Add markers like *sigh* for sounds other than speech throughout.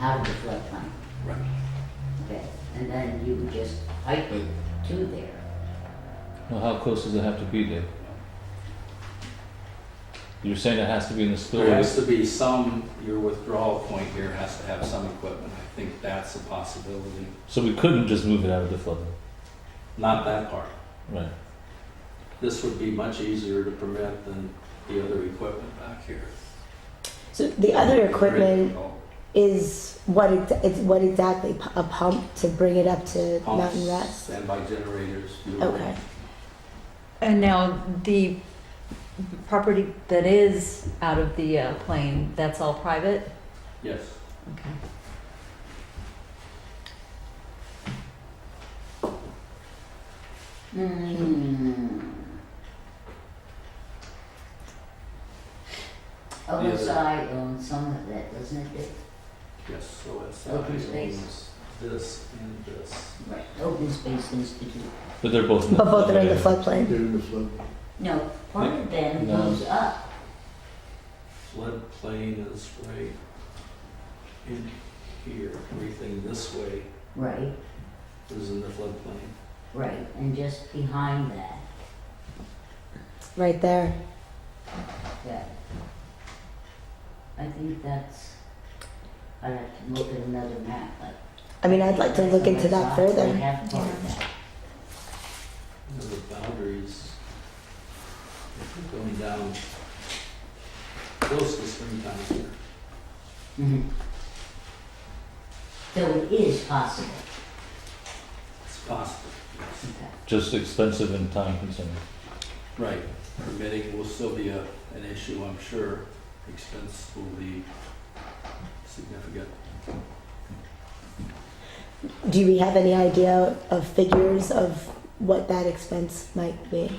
out of the floodplain. Right. Okay, and then you would just pipe it to there. Well, how close does it have to be, Dave? You're saying it has to be in the There spillway? has to be some, your withdrawal point here has to have some equipment. I think that's a possibility. So we couldn't just move it out of the flood, zone. Not that part. right? This would be much easier to permit than the other equipment back here. So the other equipment Critical is what it, it's what exactly P- a pump to bring it up to pumps, Mountain Rest. Standby generators. you know. Okay. And now the property that is out of the uh, plane, that's all private? Yes. Okay. Hmm. other- OSI owns some of that, doesn't it? Dick? Yes, so it's Open space. this and this. Right. Open Space Institute. But they're both in the But both are in the floodway. floodplain. No, part of them No. goes up. Floodplain is right in here. Everything this way Right, is in the floodplain. right, and just behind that, Right there. yeah. I think that's, I'd have to look at another map, but. I mean, I'd like to look into that I further. have part of that. You know, the boundaries going down close to springtime here. Mhm. So it is possible. It's possible. yes. Okay. Just expensive and time consuming. Right, permitting will still be a, an issue, I'm sure. Expense will be significant. Do we have any idea of figures of what that expense might be?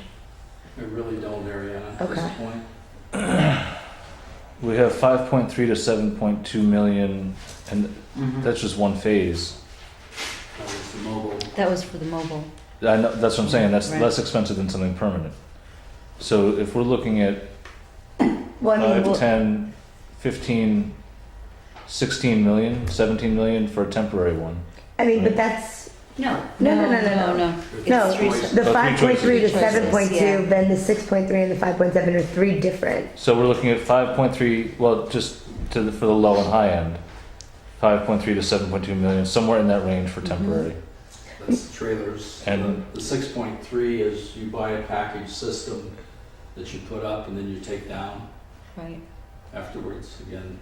I really don't, Ariana, at this Okay. point. We have five point three to seven point two million, and Mhm. that's just one phase. That was the Uh, mobile. That was for the mobile. I know, that's what I'm saying, that's Right. less expensive than something permanent. So if we're looking at Well, I mean, five, we'll- ten, fifteen, sixteen million, seventeen million for a temporary one. I mean, Right. but that's No, no, no, no, no, no, no. no. No, three Choice. the choices. five point three to Choices, seven point yeah. two, then the six point three and the five point seven are three different. So we're looking at five point three, well, just to the, for the low and high end, five point three to seven point two million, somewhere in that range for Mhm. temporary. That's the trailers. And- The six point three is you buy a package system that you put up and then you take down Right. afterwards, again,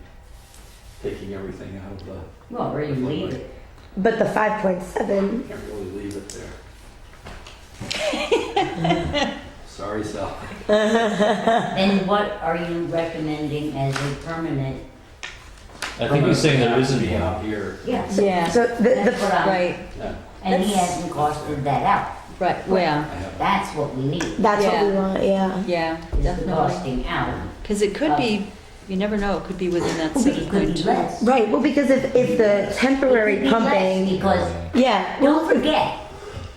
taking everything out of the, well, or you leave it. But the five point seven, can't really leave it there. Sorry, Sal. Then what are you recommending as a permanent? I think he's saying there isn't Be one. out here, Yeah, Yeah, so the, that's the what I'm, right, yeah, and he that's- hasn't costed that out. right, yeah, I have, That's what we need, is That's what we Yeah. want, yeah. yeah, the definitely. costing out. Because it could be, you never know, it could be within that But it seven could point be two. less. It right. Well, because if if the could temporary be less pumping, Because, yeah, don't forget,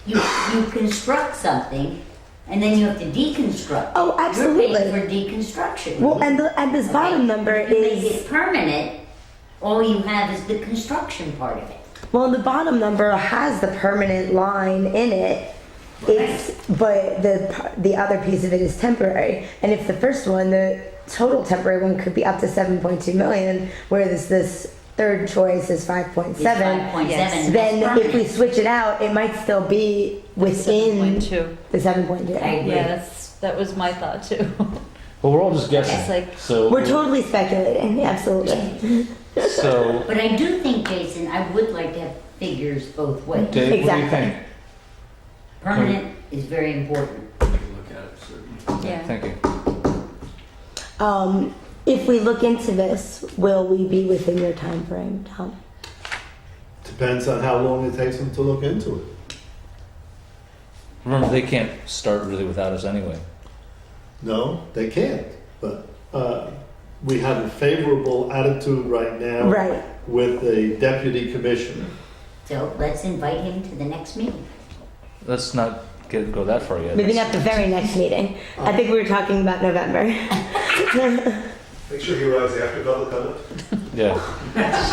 you, you construct something and then you have to deconstruct. Oh, absolutely. You're paying for deconstruction. well, and the and this Okay. bottom number If you Make is it permanent, all you have is the construction part of it. well, the bottom number has the permanent line in it. It's but the par- the other piece of it is temporary, and if the first one, the total temporary one could be up to seven point two million, whereas this third choice is five point It's seven. 5.7 yes. is then if we permanent. switch it out, it might still be within 7.2. the 7.2. I agree. Yeah, that's, that was my thought too. Well, we're all just It's guessing, like- so. We're totally speculating, absolutely. So, But I do think, Jason, I would like to have figures both ways. Dave, what do you Exactly. think? Permanent is very important. to look at it, certainly. *laughs* Yeah, Thank you. Um, If we look into this, will we be within your time frame, Tom? Depends on how long it takes them to look into it. Remember, they can't start really without us anyway. No, they can't. But uh, we have a favorable attitude right now Right. with the deputy commissioner. So let's invite him to the next meeting. Let's not get go that far yet. Maybe That's- not the very next meeting. I think we were talking about November. Make sure he arrives after public comment. Yeah.